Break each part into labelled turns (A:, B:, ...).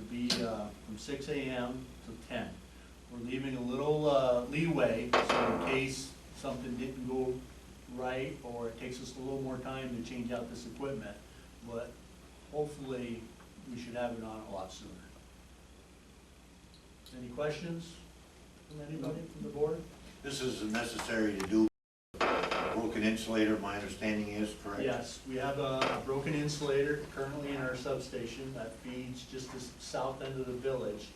A: be uh, from six AM to ten. We're leaving a little uh, leeway, so in case something didn't go right, or it takes us a little more time to change out this equipment, but hopefully, we should have it on a lot sooner. Any questions from anybody from the board?
B: This is necessary to do broken insulator, my understanding is, correct?
A: Yes, we have a broken insulator currently in our substation that feeds just the south end of the village.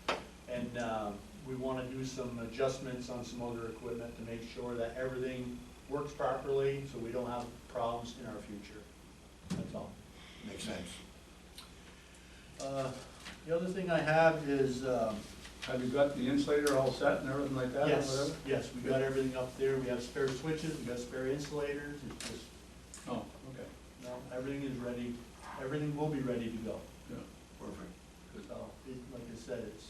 A: And um, we want to do some adjustments on some other equipment to make sure that everything works properly, so we don't have problems in our future. That's all.
B: Makes sense.
A: Uh, The other thing I have is, um,
C: Have you got the insulator all set and everything like that? or
A: yes,
C: whatever?
A: yes, we got everything up there. We have spare switches, we got spare insulators, it's just,
C: Oh, okay,
A: no, everything is ready. Everything will be ready to go.
C: yeah.
B: Perfect.
C: Mm-hmm.
A: So, Oh, it, like I said, it's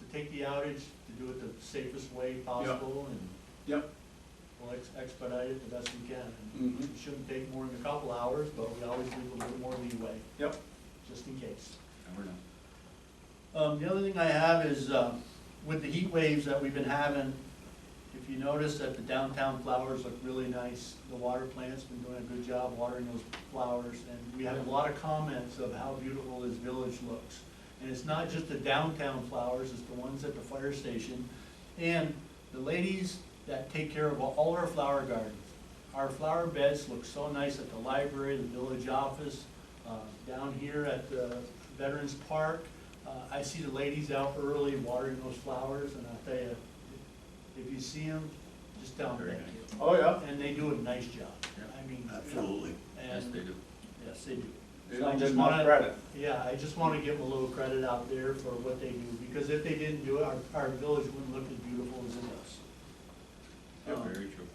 A: to take the outage, to do it the safest way possible, and
C: Yep,
A: we'll ex- expedite it the best we can. And
C: Mhm.
A: It shouldn't take more than a couple hours, but we always leave a little more leeway,
C: yep.
A: just in case.
B: And we're done.
A: Um, the other thing I have is, um, with the heat waves that we've been having, if you notice that the downtown flowers look really nice, the water plant's been doing a good job watering those flowers, and we have a lot of comments of how beautiful this village looks. And it's not just the downtown flowers, it's the ones at the fire station, and the ladies that take care of all our flower gardens. Our flower beds look so nice at the library, the village office, uh, down here at the Veterans Park. Uh, I see the ladies out early watering those flowers, and I tell you, if you see them, just tell them thank you.
C: Oh, yeah.
A: And they do a nice job.
D: Yeah.
A: I mean.
B: Absolutely.
D: Yes,
A: And,
D: they do.
A: yes, they do.
C: They
A: So I
C: don't get
A: just
C: enough
A: wanna-
C: credit.
A: Yeah, I just want to give them a little credit out there for what they do, because if they didn't do it, our, our village wouldn't look as beautiful as it does.
D: Yeah,
A: Um,
D: very true.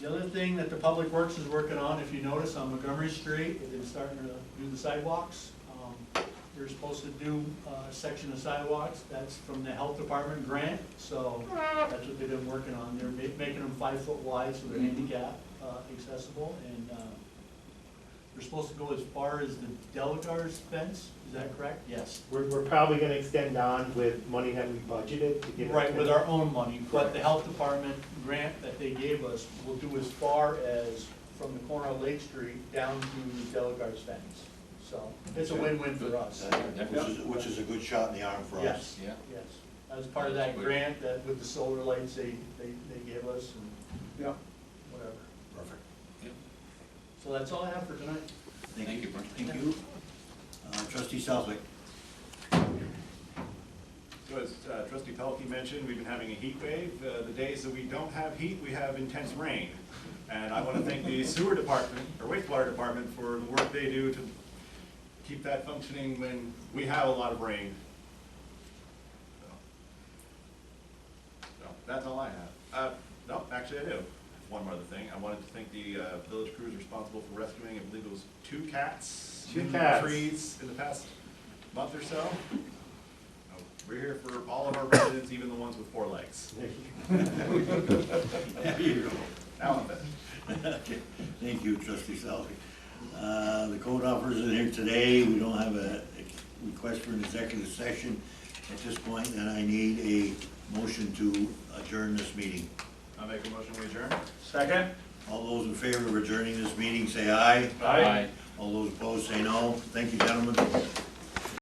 A: The other thing that the Public Works is working on, if you notice, on Montgomery Street, they've been starting to do the sidewalks. Um, They're supposed to do uh, a section of sidewalks, that's from the Health Department grant, so that's what they've been working on. They're ma- making them five foot wide, so they're handicap uh, accessible, and um, they're supposed to go as far as the Delagar's fence, is that correct? Yes.
E: We're, we're probably gonna extend on with money that we budgeted to get.
A: Right, with our own money, but the health department grant that they gave us will do as far as from the corner of Lake Street down to Delagar's fence. So it's a win-win for us.
B: That- Which is, which is a good shot in the arm for us.
A: Yes,
D: Yeah.
A: yes. As part of that grant that with the solar lights they, they, they gave us and
C: Yeah.
A: whatever.
B: Perfect.
D: Yeah.
A: So that's all I have for tonight.
D: Thank you, Brent.
B: Thank you. Uh, Trustee Southwick,
F: So as uh, trustee Pelkey mentioned, we've been having a heat wave. Uh, The days that we don't have heat, we have intense rain. And I want to thank the sewer department, or wastewater department, for the work they do to keep that functioning when we have a lot of rain. So- So, that's all I have. Uh, No, actually I do. One more other thing. I wanted to thank the uh, village crews responsible for rescuing, I believe it was two cats.
E: Two
F: in
E: cats.
F: Trees in the past month or so. Uh, We're here for all of our residents, even the ones with four legs.
B: there you go.
F: Now I'm finished.
B: Okay. Thank you, trustee Southwick. Uh, The code officers are here today, we don't have a a request for an executive session at this point, and I need a motion to adjourn this meeting.
F: I make a motion, we adjourn.
C: Second?
B: All those in favor of adjourning this meeting, say aye.
D: Aye.
B: All those opposed, say no. Thank you, gentlemen.